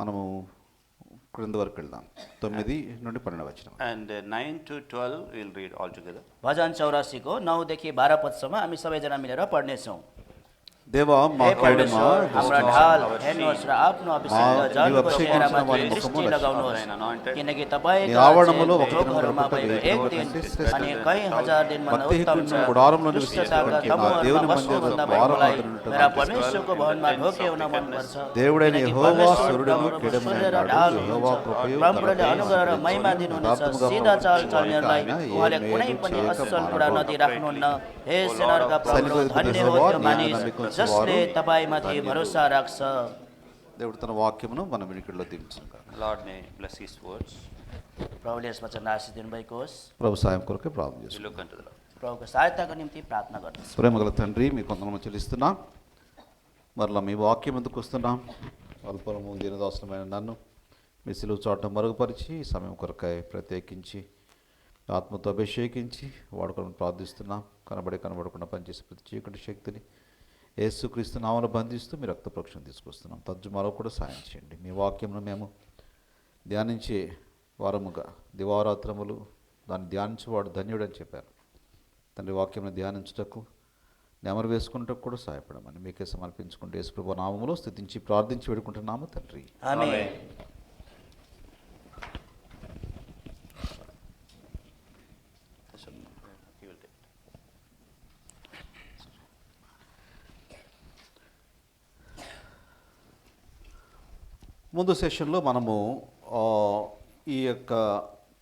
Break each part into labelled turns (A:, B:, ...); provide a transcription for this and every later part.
A: మనము క్రింద వరకు వెళ్దాం తొమ్మిది నుండి పన్నెండు వచ్చిన
B: And uh, 9 to 12, we'll read all together.
C: भजन चौरासीको नौदेखि बाह्र पदसम्म हामी सबैजना मिलेर पढ्नेछौँ
A: దేవా మా
C: हे
A: కడుమా
C: परमेश्वर हाम्रा ढाल
B: our
C: हेर्नुहोस् र आफ्नो
A: मा-
C: अभिषेक
A: तिम्रो
C: जनको
A: अभिषेक
C: चेहरामा
A: अनुसार मलाई
C: दृष्टि
A: मुखमा
C: लगाउनुहोस्
B: लगाउनुहोस्। Anointed.
C: किनकि तपाईँको
A: నీ ఆవరణములో
C: अचेल
A: ఒక
C: ढोकहरूमा
A: దినము
C: भएको
A: ప్రతి
C: एक
A: దినము
C: दिन
A: కంటే శ్రేష్ఠ
C: अनि
B: దినం.
C: कहीँ हजार दिनभन्दा
A: భక్తి
C: उत्तम छ
A: హేతువును గుడారంలో
C: दुष्टताका
A: నివసించడానికి మా
C: तमुहरूमा
A: దేవుని మందిరంలో
C: बस्नुभन्दा
A: ద్వారములు
C: भएकोलाई
A: తెరుచుటకు
C: मेरा
A: నాకు
C: परमेश्वरको भवनमा ढोके हुन मनपर्छ
A: దేవుడైన
C: किनकि
A: యెహోవా
C: परमेश्वर
A: సూర్యుడును
C: ప్రభువుको
A: కిరీటమునై
C: सूर्य र
A: ఉన్నాడు.
C: ढाल
A: యెహోవా
C: हुनुहुन्छ।
A: కృపయుడు,
C: प्रभुले
A: కరుణామయుడు,
C: अनुग्रह र మహిमा दिनुहुनेछ
A: యథార్థముగా
C: सिधा चाल
A: ప్రవర్తించు
C: चल्नेहरूलाई
A: వారికైనా ఏ
C: उहाँले
A: మేలు
C: कुनै पनि
A: చేయక
C: असल
A: మానవు.
C: कुरा नदिराख्नुहुन्न हे सेनाहरूका प्रभु
A: సైనికులకు
C: धन्य हो
A: తెలుసువారు,
C: त्यो मानिस
A: జ్ఞానమికు
C: जसले
A: తెలుసువారు.
C: तपाईँमाथि
A: ధన్యులు.
C: भरोसा राख्छ
A: దేవుడు తన వాక్యమును మనం వినికిడిలో దించుగా
B: Lord may bless his words.
C: प्रभुले यस वचन आशिष दिनुभएको होस्
A: ప్రభు సాయం కొరకే ప్రార్థన
B: We
A: చేస్తున్నాం
B: look unto the Lord.
C: ప్రభుకు సహాయతకు నిమిత్తి ప్రార్థన गर्नुहोस्
A: ప్రేమ గల తండ్రి మీ కొందరము చెల్లిస్తున్నాం మరలా మీ వాక్యం ఎందుకు వస్తున్నాం అల్పలము దీనదాసనమైన నన్ను మీ సిలువు చాట మరుగుపరిచి ఈ సమయం కొరకాయ ప్రత్యేకించి ఆత్మతో అభిషేకించి వాడుకొని ప్రార్థిస్తున్నాం కనబడి కనబడకుండా పనిచేసే ప్రతి చీకటి శక్తిని యేసుక్రీస్తు నామను బంధిస్తూ మీ రక్త ప్రోక్షణ తీసుకొస్తున్నాం తర్జుమాలో కూడా సాయం చేయండి మీ వాక్యంను మేము ధ్యానించే వారముగా దివారాత్రములు దాన్ని ధ్యానించేవాడు ధన్యుడని చెప్పారు తండ్రి వాక్యంను ధ్యానించుటకు నెమరు వేసుకుంటకు కూడా సహాయపడమని మీకే సమర్పించుకుంటే యేసుప్రభు నామములో స్థుతించి ప్రార్థించి వేడుకుంటున్నాము తండ్రి
C: आमेन
B: uh, He will take it.
A: ముందు సెషన్లో మనము ఆ, ఈ యొక్క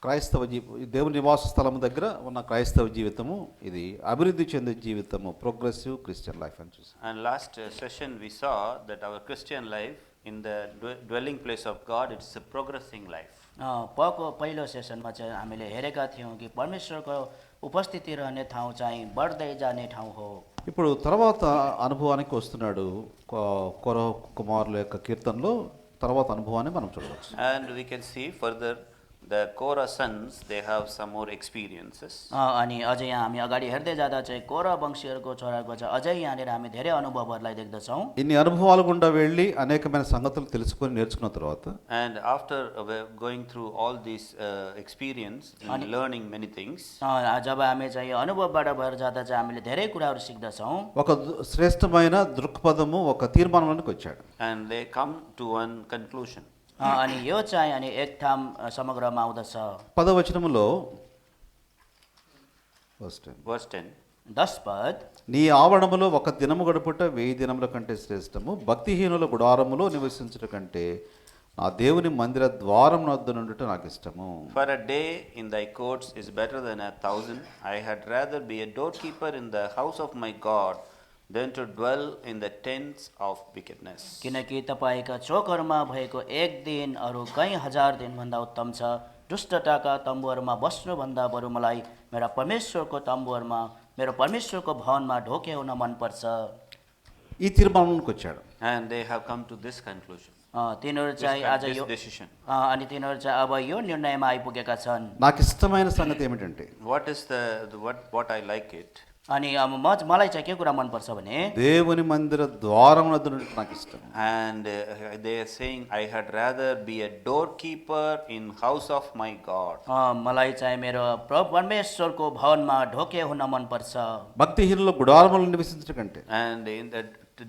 A: క్రైస్తవ జీ దేవుని నివాస స్థలం దగ్గర ఉన్న క్రైస్తవ జీవితము ఇది అభివృద్ధి చెందే జీవితము ప్రోగ్రెసివ్ క్రిస్టియన్ లైఫ్ అని చూసాం
B: And last uh, session, we saw that our Christian life in the dwe- dwelling place of God, it's a progressing life.
C: पको पहिलो सेसनमा चाहिँ हामीले हेरेका थियौँ कि परमेश्वरको उपस्थिति रहने ठाउँ चाहिँ बढ्दै जाने ठाउँ हो
A: ఇప్పుడు తర్వాత అనుభవానికి వస్తున్నాడు కొ- కొర కుమారుల యొక్క కీర్తనలో తర్వాత అనుభవాన్ని మనం చూడవచ్చు
B: And we can see further the Korah sons, they have some more experiences.
C: अ, अनि अझै यहाँ हामी अगाडि हेर्दै जाँदा चाहिँ कोर वंशीहरूको छोराको चाहिँ अझै यहाँनिर हामी धेरै अनुभवहरूलाई देख्दछौँ
A: ఇన్ని అనుభవాలు గుండా వెళ్ళి అనేకమైన సంగతులు తెలుసుకొని నేర్చుకున్న తర్వాత
B: And after uh, we're going through all these uh, experience and learning many things,
C: अ, जब हामी चाहिँ यो अनुभवबाट भएर जाँदा चाहिँ हामीले धेरै कुराहरू सिक्दछौँ
A: ఒక దు- శ్రేష్టమైన దృక్పథము ఒక తీర్మానానికి వచ్చాడు
B: and they come to one conclusion.
C: अ, अनि यो चाहिँ अनि एक ठाम अ, समग्रमा आउँदछ
A: పదవచనములో ఫస్ట్
B: Verse 10
C: दस पद
A: నీ ఆవరణములో ఒక దినము గడుపుట వెయ్యి దినముల కంటే శ్రేష్టము భక్తిహీనుల గుడారములో నివసించుట కంటే ఆ దేవుని మందిర ద్వారం వద్ద నుండుట నాకు ఇష్టము
B: For a day in thy courts is better than a thousand. I had rather be a doorkeeper in the house of my God than to dwell in the tents of wickedness.
C: किनकि तपाईँका चोकहरूमा भएको एक दिन अरू कहीँ हजार दिनभन्दा उत्तम छ दुष्टताका तम्बुहरूमा बस्नुभन्दा बरु मलाई मेरा परमेश्वरको तम्बुहरूमा मेरो परमेश्वरको भवनमा ढोके हुन मनपर्छ
A: ఈ తీర్మానానికి వచ్చాడు
B: And they have come to this conclusion,
C: अ, तिनीहरू
B: this,
C: चाहिँ आज यो
B: this decision.
C: अ, अनि तिनीहरू चाहिँ अब यो निर्णयमा आइपुगेका छन्
A: నాకు ఇష్టమైన సంగతి ఏమిటంటే
B: What is the, the what, what I like it?
C: अनि अब म मलाई चाहिँ के कुरा मनपर्छ भने
A: దేవుని మందిర ద్వారం వద్ద నుండుట నాకు ఇష్టం
B: And uh, they are saying, I had rather be a doorkeeper in house of my God.
C: अ, मलाई चाहिँ मेरो प्रभु परमेश्वरको भवनमा ढोके हुन मनपर्छ
A: భక్తిహీనుల గుడారములు నివసించట కంటే
B: And in the,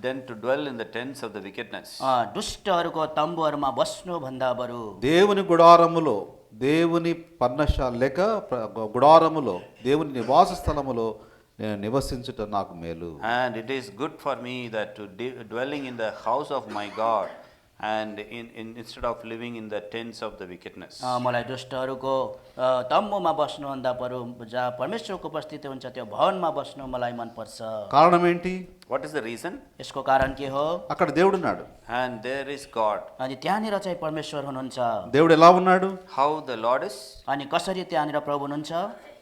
B: then to dwell in the tents of the wickedness.
C: अ, दुष्टहरूको तम्बुहरूमा बस्नुभन्दा बरु
A: దేవుని గుడారములో దేవుని పర్ణశాల లేక ప్ర- గుడారములో దేవుని నివాస స్థలములో నేను నివసించుట నాకు మేలు
B: And it is good for me that to de- dwelling in the house of my God and in, in, instead of living in the tents of the wickedness.
C: अ, मलाई दुष्टहरूको अ, तम्बुमा बस्नुभन्दा बरु जहाँ परमेश्वरको उपस्थिति हुन्छ त्यो भवनमा बस्नु मलाई मनपर्छ
A: కారణం ఏంటి
B: What is the reason?
C: यसको कारण के हो
A: అక్కడ దేవుడున్నాడు
B: And there is God.
C: अनि त्यहाँनिर चाहिँ परमेश्वर हुनुहुन्छ
A: దేవుడు ఎలా ఉన్నాడు
B: How the Lord is,
C: अनि कसरी त्यहाँनिर प्रभु हुनुहुन्छ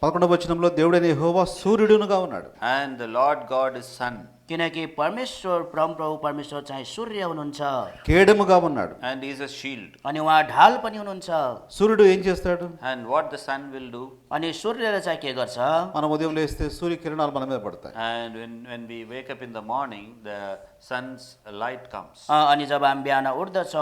A: పదకొండవ వచనంలో దేవుడైన యెహోవా సూర్యుడునుగా ఉన్నాడు
B: and the Lord God is Son,
C: किनकि परमेश्वर परमप्रभु परमेश्वर चाहिँ सूर्य हुनुहुन्छ
A: కేడముగా ఉన్నాడు
B: and He is a shield.
C: अनि उहाँ ढाल पनि हुनुहुन्छ
A: సూర్యుడు ఏం చేస్తాడు
B: And what the Son will do,
C: अनि सूर्यले चाहिँ के गर्छ
A: మనం ఉదయం లేస్తే సూర్యకిరణాలు మన మీద పడతాయి
B: and when, when we wake up in the morning, the sun's light comes.
C: अ, अनि जब हामी बिहान उठ्दछौँ